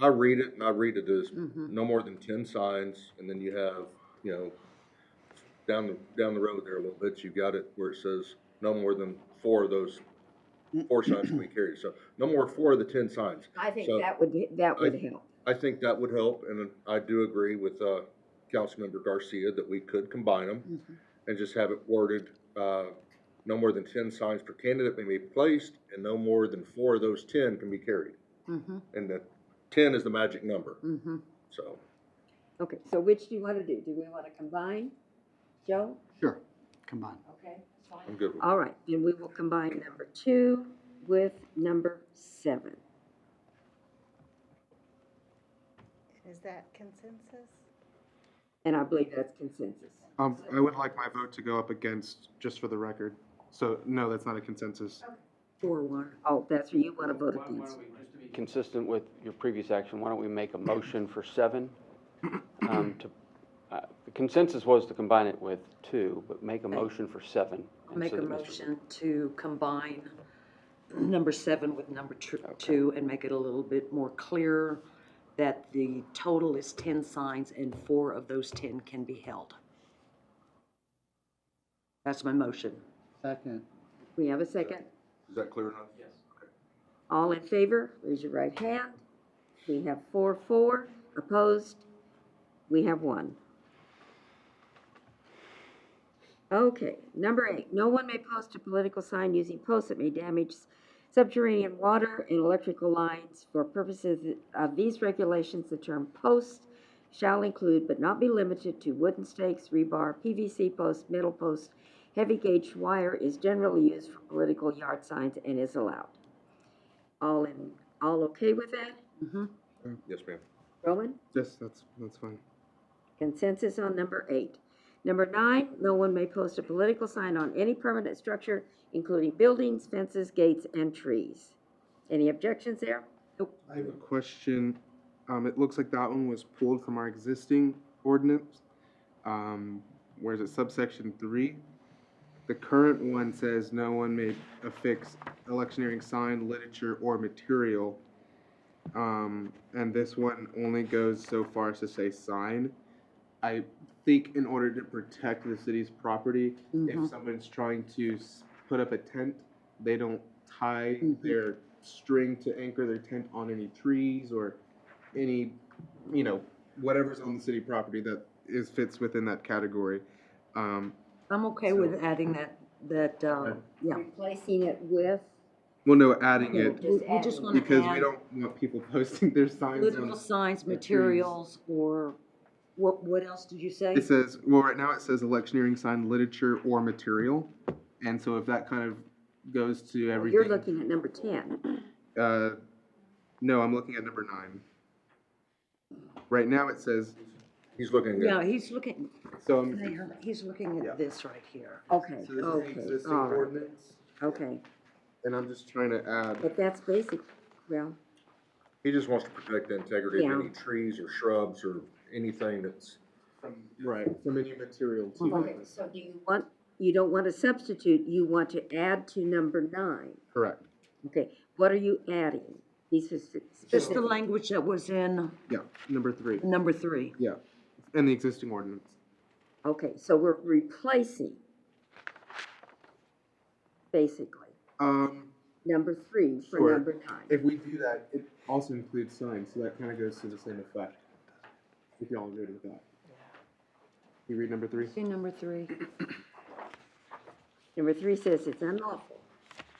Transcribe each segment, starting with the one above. I read it, and I read it as Mhm. no more than ten signs, and then you have, you know, down the, down the road there a little bit, you've got it where it says no more than four of those, four signs can be carried, so no more four of the ten signs. I think So- that would, that would help. I think that would help, and I do agree with, uh, Councilmember Garcia that we could combine them Mhm. and just have it worded, uh, no more than ten signs per candidate may be placed, and no more than four of those ten can be carried. Mhm, And the ten is the magic number, mhm. so. Okay, so which do you want to do? Do we want to combine? Joe? Sure, combine. Okay, that's fine. I'm good with it. All right, then we will combine number two with number seven. Is that consensus? And I believe that's consensus. Um, I would like my vote to go up against, just for the record. So, no, that's not a consensus. Four, one. Oh, that's where you want to vote Why- why against. don't we- just to be Consistent with your previous action, why don't we make a motion for seven? um, to- uh, The consensus was to combine it with two, but make a motion for seven. and Make so a that Mr. motion to combine number seven with number tr- two and make it a little bit more clear that the total is ten signs and four of those ten can be held. That's my motion. Second. We have a second? Is that clear enough? All in favor, raise your right hand. We have four, four. Opposed? We have one. Okay, number eight, no one may post a political sign using posts that may damage subterranean water and electrical lines. For purposes of these regulations, the term post shall include but not be limited to wooden stakes, rebar, PVC posts, metal posts. Heavy gauge wire is generally used for political yard signs and is allowed. All in, all okay with that? Yes, ma'am. Roman? Yes, that's, that's fine. Consensus on number eight. Number nine, no one may post a political sign on any permanent structure, including buildings, fences, gates, and trees. Any objections there? I have a question. Um, it looks like that one was pulled from our existing ordinance. Um, where is it? Subsection three. The current one says no one may affix electioneering sign, literature, or material. Um, and this one only goes so far as to say sign. I think in order to protect the city's property, Mm-hmm. if someone's trying to s- put up a tent, they don't tie their string to anchor their tent on any trees or any, you know, whatever's on the city property that is fits within that category. Um, I'm okay with adding that, that, um, yeah. Replacing it with? well, no, adding Yeah, it We we just want to because we add don't want people posting their signs political on. signs, the trees. materials, or what, what else did you say? It says, well, right now it says electioneering sign, literature, or material, and so if that kind of goes to everything. You're looking at number ten. Uh, no, I'm looking at number nine. Right now it says, He's looking No, good. he's looking, so I'm. Mayor, he's looking Yeah. at this right here. Okay, So this is the okay, existing all right, ordinance, okay. and I'm just trying to add, But that's basic, well, He just wants to protect the integrity Yeah. of any trees or shrubs or anything that's, right, from any material to. okay, so do you want, you don't want to substitute, you want to add to number nine. Correct, Okay, what are you adding? These are spe- Just the specific. language that was in yeah, number three, number three. yeah, and the existing ordinance. Okay, so we're replacing, basically, Um, number three for Sure. number nine. if we do that, it also includes signs, so that kind of goes to the same effect. If y'all agree with that. You read number three? See number three? Number three says it's unlawful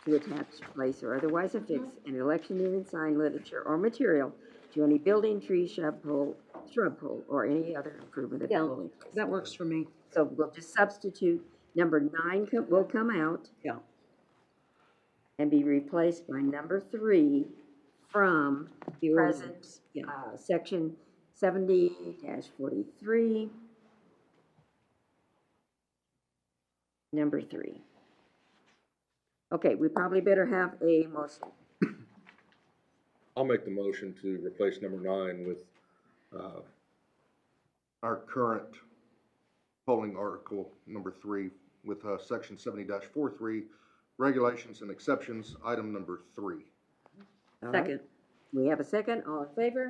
to attach, place, or otherwise affix an electioneering sign, literature, or material to any building, tree, shrub pole, shrub pole, or any other improvement of the Yeah, building. that works for me. So we'll just substitute, number nine co- will come out. Yeah. And be replaced by number three from The present, ordinance, yeah. uh, section seventy forty-three. Number three. Okay, we probably better have a motion. I'll make the motion to replace number nine with, uh, our current polling article, number three, with, uh, section seventy dash four three, regulations and exceptions, item number three. All right, Second. We have a second, all in favor?